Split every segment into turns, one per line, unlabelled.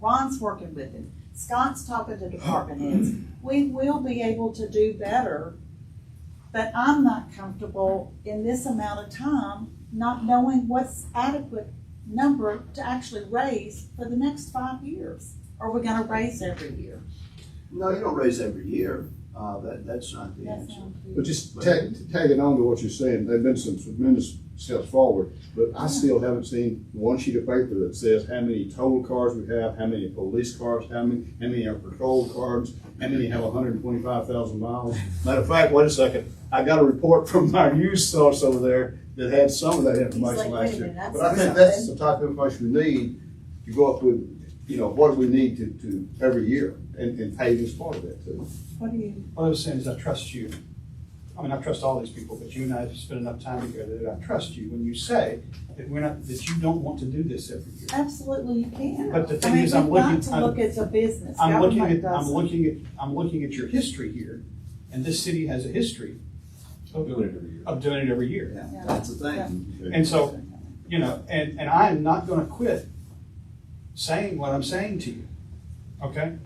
Scott's working with him, Scott's talking to department heads. We will be able to do better, but I'm not comfortable in this amount of time not knowing what's adequate number to actually raise for the next five years. Are we gonna raise every year?
No, you don't raise every year. Uh, that, that's not the
That's
answer.
not fair.
But just tag, tagging on to what you're saying, there've been some tremendous steps forward, but I still haven't seen one sheet of paper that says how many total cars we have, how many police cars, how many, how many are patrol cars, how many have hundred and twenty-five thousand miles. Matter of fact, wait a second, I got a report from our used source over there that had some of that
He's like,
information
wait a
last year.
minute, that's
But I think that's the type of information we need to go up with, you know, what we need to, to every year, and, and paving is part of that too.
What do you,
What I was saying is I trust you. I mean, I trust all these people, but you and I have spent enough time together that I trust you when you say that we're not, that you don't want to do this every year.
absolutely you can.
But the
I
thing
mean,
is, I'm
we've got
looking-
To
I'm-
look at the business,
I'm looking
government
at, I'm
does.
looking at, I'm looking at your history here, and this city has a history
I'm doing it every year.
of doing it every year.
Yeah, that's the thing.
And so, you know, and, and I am not gonna quit saying what I'm saying to you, okay?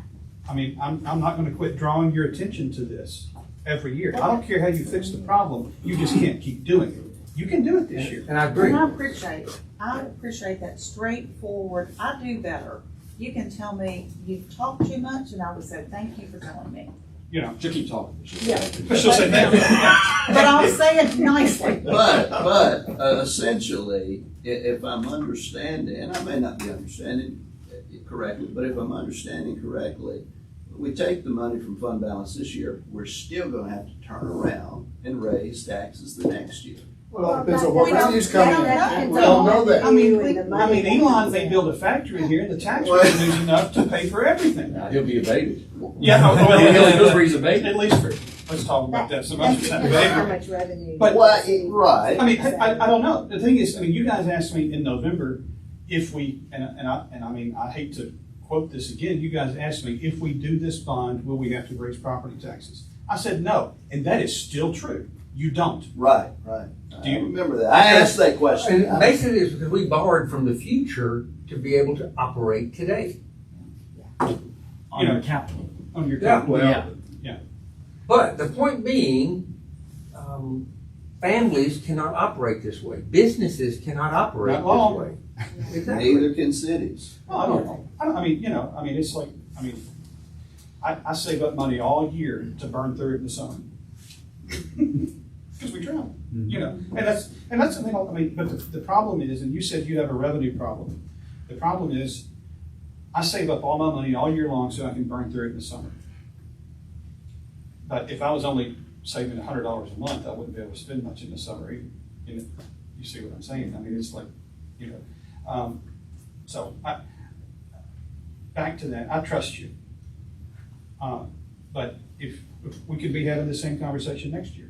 I mean, I'm, I'm not gonna quit drawing your attention to this every year. I don't care how you fix the problem, you just can't keep doing it. You can do it this year.
And I agree.
And I appreciate, it. I appreciate that straightforward, I do better. You can tell me, you've talked too much, and I would say, thank you for telling me.
You know,
She'll keep talking. She'll-
Yeah.
she'll say that.
But I'll say it nicely.
But, but uh, essentially, i- if I'm understanding, and I may not be understanding it correctly, but if I'm understanding correctly, we take the money from fund balance this year, we're still gonna have to turn around and raise taxes the next year.
Well, it
depends
depends
on
on
what
what
We don't- revenue's we
revenue's
coming don't in. know.
coming in.
We
We
don't
don't
know
know
that.
that.
I mean, we-
I mean, Elon may build a factory here, the tax revenue's enough to pay for everything.
He'll be abated.
Yeah, oh, well,
He'll- he'll- he'll
yeah,
freeze
yeah.
abated.
at least for, let's talk about that some other
That's
time.
because of how much revenue.
But-
Well, it- right.
I mean, I, I- I don't know. The thing is, I mean, you guys asked me in November if we, and, and I, and I mean, I hate to quote this again, you guys asked me, if we do this bond, will we have to raise property taxes? I said no, and that is still true. You don't.
Right, right.
Do
I
you-
remember that. I asked that question.
And basically, it's because we borrowed from the future to be able to operate today.
You know,
capital.
on your.
Yeah,
Yeah.
well, but the point being, um, families cannot operate this way. Businesses cannot operate
Not long.
this way. Exactly.
Neither can cities.
Well, I don't, I don't, I mean, you know, I mean, it's like, I mean, I, I save up money all year to burn through it in the summer. Because we travel, you know, and that's, and that's the thing, I mean, but the, the problem is, and you said you have a revenue problem. The problem is, I save up all my money all year long so I can burn through it in the summer. But if I was only saving a hundred dollars a month, I wouldn't be able to spend much in the summer either. You know, you see what I'm saying? I mean, it's like, you know, um, so I, back to that, I trust you. Uh, But if, if we could be having the same conversation next year.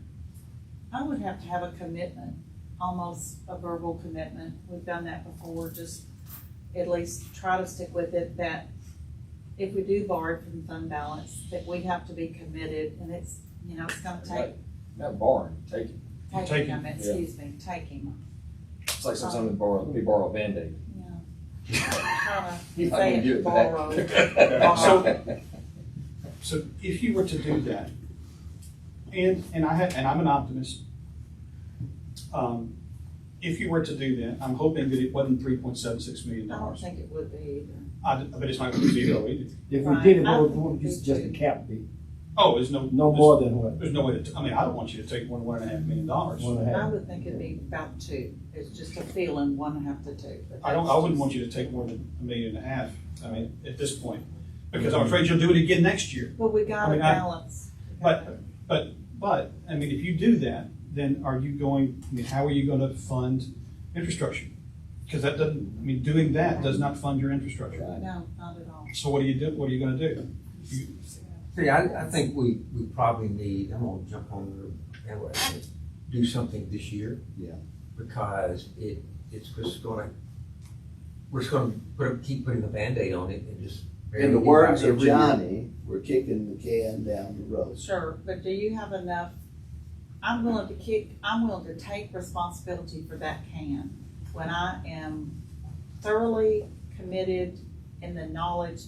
I would have to have a commitment, almost a verbal commitment. We've done that before, just at least try to stick with it, that if we do borrow from fund balance, that we have to be committed, and it's, you know, it's gonna take,
Not borrowing, taking.
taking
Taking,
them, excuse me, taking them,
It's like sometimes we borrow, let me borrow a Band-Aid.
yeah. Try to
You're not
say
gonna do it
borrow.
today.
So- So if you were to do that, and, and I have, and I'm an optimist. Um, If you were to do that, I'm hoping that it wasn't three point seven six million
I don't
dollars.
think it would be either.
I, but it's not gonna be zero either.
If we
Right.
did it,
I
what would-
think
what would you
we
suggest the
should.
cap be?
Oh, there's no.
No
there's-
more than what?
There's no way to, t- I mean, I don't want you to take more than one and a half million dollars.
One and a
I
half?
would think it'd be about two, it's just a feeling, one and a half to two. but
I don't, I wouldn't want you to take more than a million and a half, I mean, at this point, because I'm afraid you'll do it again next year.
But we gotta
I mean, I-
balance.
But, but, but, I mean, if you do that, then are you going, I mean, how are you gonna fund infrastructure? Because that doesn't, I mean, doing that does not fund your infrastructure.
No, not at all.
So what do you do, what are you gonna do? You-
See, I, I think we, we probably need, I'm gonna jump on the bandwagon, do something this year.
Yeah.
Because it, it's just gonna, we're just gonna put, up- keep putting a Band-Aid on it and just.
In the words of
Every year.
Johnny, we're kicking the can down the road.
Sure, but do you have enough, I'm willing to kick, I'm willing to take responsibility for that can. When I am thoroughly committed in the knowledge